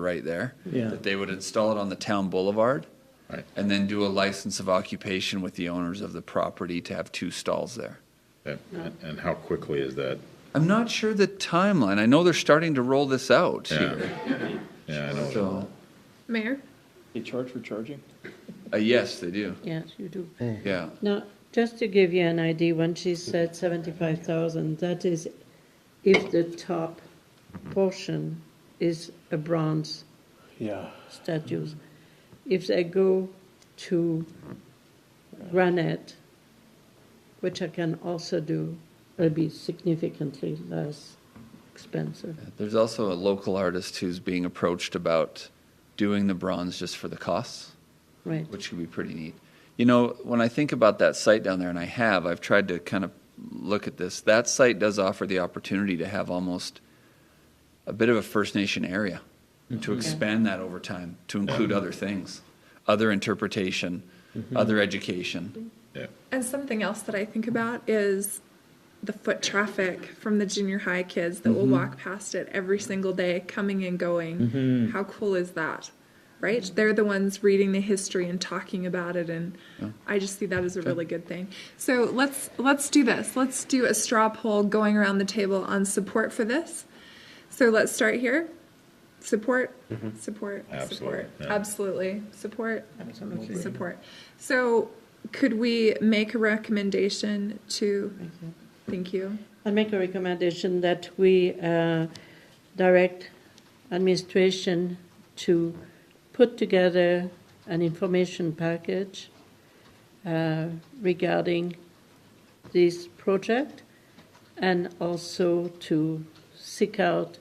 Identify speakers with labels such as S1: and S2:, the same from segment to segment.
S1: right there.
S2: Yeah.
S1: That they would install it on the town boulevard.
S3: Right.
S1: And then do a license of occupation with the owners of the property to have two stalls there.
S3: And, and how quickly is that?
S1: I'm not sure the timeline. I know they're starting to roll this out
S3: Yeah.
S1: here.
S3: Yeah, I know.
S1: So,
S4: Mayor?
S2: They charge for charging?
S1: uh, yes, they do.
S5: Yes, you do.
S1: Yeah.
S5: Now, just to give you an idea, when she said seventy-five thousand, that is if the top portion is a bronze
S2: Yeah.
S5: statues. If they go to granite, which I can also do, it'll be significantly less expensive.
S1: There's also a local artist who's being approached about doing the bronze just for the costs.
S5: Right,
S1: which could be pretty neat. You know, when I think about that site down there, and I have, I've tried to kind of look at this. That site does offer the opportunity to have almost a bit of a First Nation area
S5: Mm-hmm.
S1: to expand that over time to include other things, other interpretation,
S5: Mm-hmm.
S1: other education.
S3: Yeah,
S4: And something else that I think about is the foot traffic from the junior high kids that will walk past it every single day, coming and going. How cool is that? Right? They're the ones reading the history and talking about it and I just see that as a really good thing. So let's let's do this. Let's do a straw poll going around the table on support for this. So let's start here. Support, support,
S3: Mm-hmm. Absolutely,
S4: support.
S3: yeah.
S4: Absolutely. Support. Absolutely. Support. So could we make a recommendation to, thank you.
S5: I make a recommendation that we uh, direct administration to put together an information package uh, regarding this project and also to seek out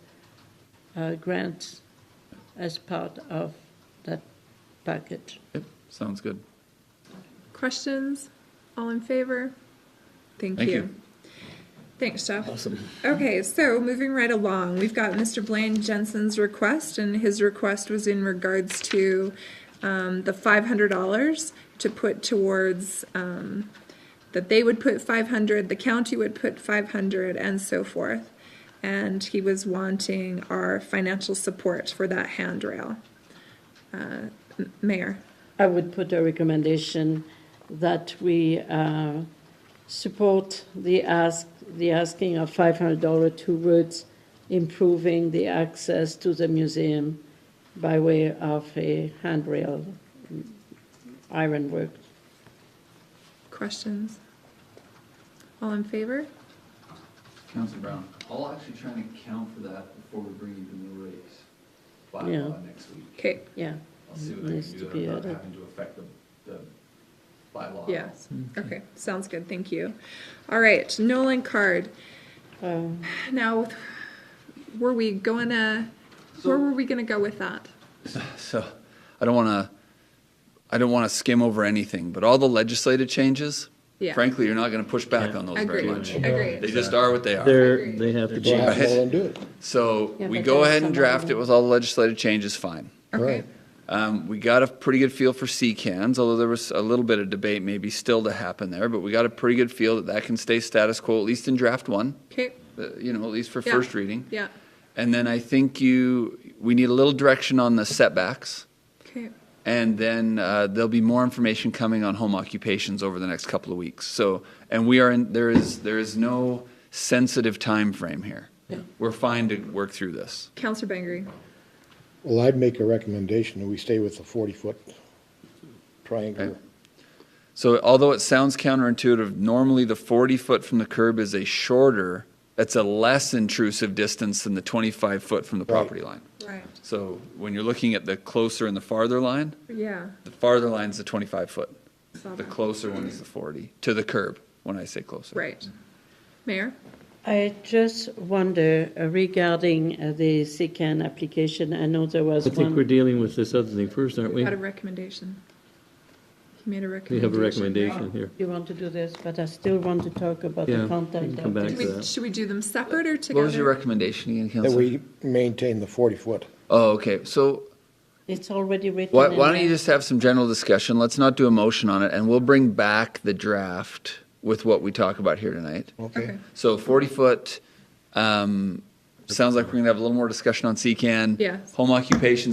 S5: uh, grants as part of that package.
S1: Yep, sounds good.
S4: Questions? All in favor? Thank
S1: Thank
S4: you.
S1: you.
S4: Thanks, Jeff. Awesome. Okay, so moving right along, we've got Mr. Blaine Jensen's request, and his request was in regards to um, the five hundred dollars to put towards, um, that they would put five hundred, the county would put five hundred, and so forth. And he was wanting our financial support for that handrail. Uh, M- Mayor?
S5: I would put a recommendation that we uh, support the ask, the asking of $500 towards improving the access to the museum by way of a handrail, mm, ironwork.
S4: Questions? All in favor?
S1: Councilor Brown, I'll actually try and account for that before we bring you the new rates
S5: bylaw Yeah.
S1: next week.
S4: Okay,
S5: Yeah,
S1: I'll see
S5: what I can Needs do to be without added. having
S1: to affect the, the bylaw.
S4: yes, okay, sounds good, thank you. All right, Nolan Card,
S5: Um,
S4: now, were we gonna, where were we gonna go with that?
S1: So I don't want to I don't want to skim over anything, but all the legislative changes,
S4: Yeah.
S1: frankly, you're not going to push back on those very
S4: Agreed,
S1: much.
S4: agreed.
S1: They just are what they are.
S2: They're, they have to
S6: Well,
S2: change.
S6: have them all and do it.
S1: so
S5: Yeah,
S1: we
S5: but
S1: go
S5: there's
S1: ahead and
S5: some other
S1: draft it
S5: ones.
S1: with all the legislative changes, fine.
S4: Okay,
S6: Right.
S1: Um, we got a pretty good feel for C cans, although there was a little bit of debate maybe still to happen there, but we got a pretty good feel that that can stay status quo, at least in draft one,
S4: okay,
S1: uh, you know, at least for
S4: Yeah.
S1: first reading.
S4: yeah,
S1: And then I think you, we need a little direction on the setbacks.
S4: okay,
S1: and then uh, there'll be more information coming on home occupations over the next couple of weeks. So, and we are in there is there is no sensitive time frame here. We're fine to work through this.
S4: Counselor Bengry,
S6: Well, I'd make a recommendation that we stay with the 40-foot triangle.
S1: Okay. So, although it sounds counterintuitive, normally the 40 foot from the curb is a shorter, that's a less intrusive distance than the 25 foot from the
S6: Right.
S1: property line.
S4: right,
S1: So, when you're looking at the closer and the farther line,
S4: yeah,
S1: the farther line's the 25 foot.
S4: saw
S1: The
S4: that.
S1: closer one is the 40 to the curb. When I say closer,
S4: right. Mayor,
S5: I just wonder uh, regarding uh, the SECAN application, I know there was
S2: I think we're
S5: one.
S2: dealing with this other thing first, aren't
S4: we
S2: we?
S4: had a recommendation. He made a
S2: We
S4: recommendation.
S2: have a recommendation here.
S5: You want to do this, but I still want to talk about
S2: Yeah,
S5: the
S2: we
S5: content
S2: can come
S5: of
S2: back
S4: Should
S2: to
S5: this.
S2: that.
S4: we, should we do them separate or together?
S1: What was your recommendation again,
S6: That
S1: Counselor?
S6: we maintain the 40-foot.
S1: Oh, okay. So
S5: It's already written.
S1: why,
S5: in
S1: why don't you
S5: there.
S1: just have some general discussion? Let's not do a motion on it, and we'll bring back the draft with what we talk about here tonight.
S6: Okay.
S1: So 40 foot, um, sounds like we're going to have a little more discussion on CCAN.
S4: Yes.
S1: Home occupation